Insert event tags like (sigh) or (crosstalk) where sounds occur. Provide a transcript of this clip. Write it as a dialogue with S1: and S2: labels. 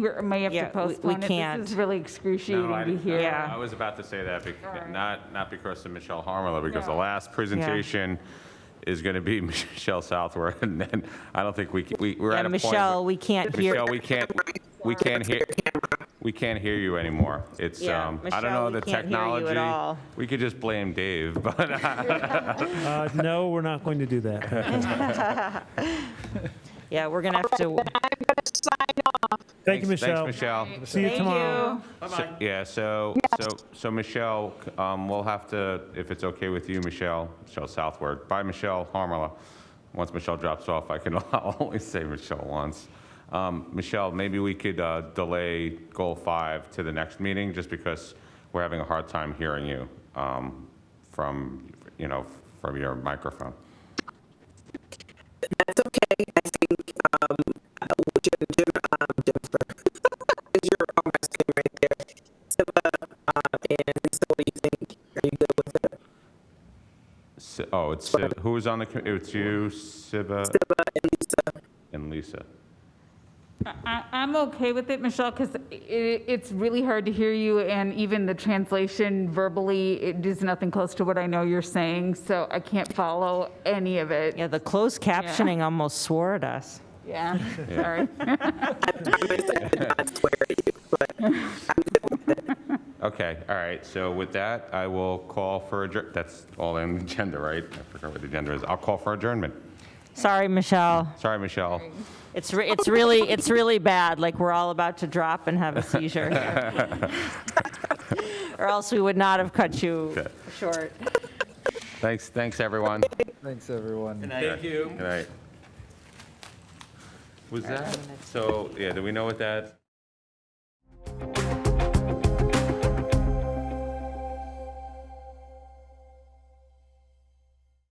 S1: We're- May have
S2: Yeah,
S1: to
S2: we- we
S1: postpone it. This
S2: can't.
S1: is really excruciating
S3: No, I-
S1: to hear.
S2: Yeah.
S3: I was about to say that, bec- not, not because of Michelle Harmala, because the last presentation is going to be (laughs) Michelle Southworth, and then I don't think we, c- we, we're at
S2: And
S3: a point.
S2: Michelle,
S3: where-
S2: we can't hear,
S3: Michelle, we can't, we can't hear, we can't hear you anymore. It's,
S2: Yeah,
S3: um, I don't
S2: Michelle,
S3: know
S2: we
S3: the
S2: can't hear you at
S3: technology.
S2: all.
S3: We could just blame Dave, (laughs) but uh,
S4: Uh, No, we're not going to
S3: (laughs)
S4: do that.
S2: yeah, we're going to have to,
S4: Thank you,
S3: thanks,
S4: Michelle.
S3: Michelle.
S4: See you
S2: thank
S4: tomorrow.
S2: you.
S3: So- Yeah, so, so, so Michelle, um, we'll have to, if it's okay with you, Michelle, Michelle Southward, by Michelle Harmala. Once Michelle drops off, I can (laughs) only say Michelle once. Um, Michelle, maybe we could, uh, delay goal five to the next meeting, just because we're having a hard time hearing you, um, from, you know, from your microphone. Si- Oh, it's, Si- who was on the, co- it's you, Siba? Siba and Lisa. And Lisa.
S1: I- I'm okay with it, Michelle, because it's really hard to hear you, and even the translation verbally, it is nothing close to what I know you're saying, so I can't follow any of it.
S2: Yeah, the closed captioning almost swore at us.
S1: Yeah,
S3: (laughs)
S1: sorry.
S3: Okay, all right, so with that, I will call for adjourn, that's all in the agenda, right? I forgot what the agenda is, I'll call for adjournment.
S2: Sorry, Michelle.
S3: Sorry, Michelle.
S2: It's, re- (laughs) it's really, it's really bad, like we're all about to drop and have a seizure here. (laughs) Or else we would not have cut you
S3: Okay.
S2: short.
S3: Thanks, thanks, everyone.
S5: Thanks, everyone.
S3: Thank you. Good night. Was that, so, yeah, do we know what that?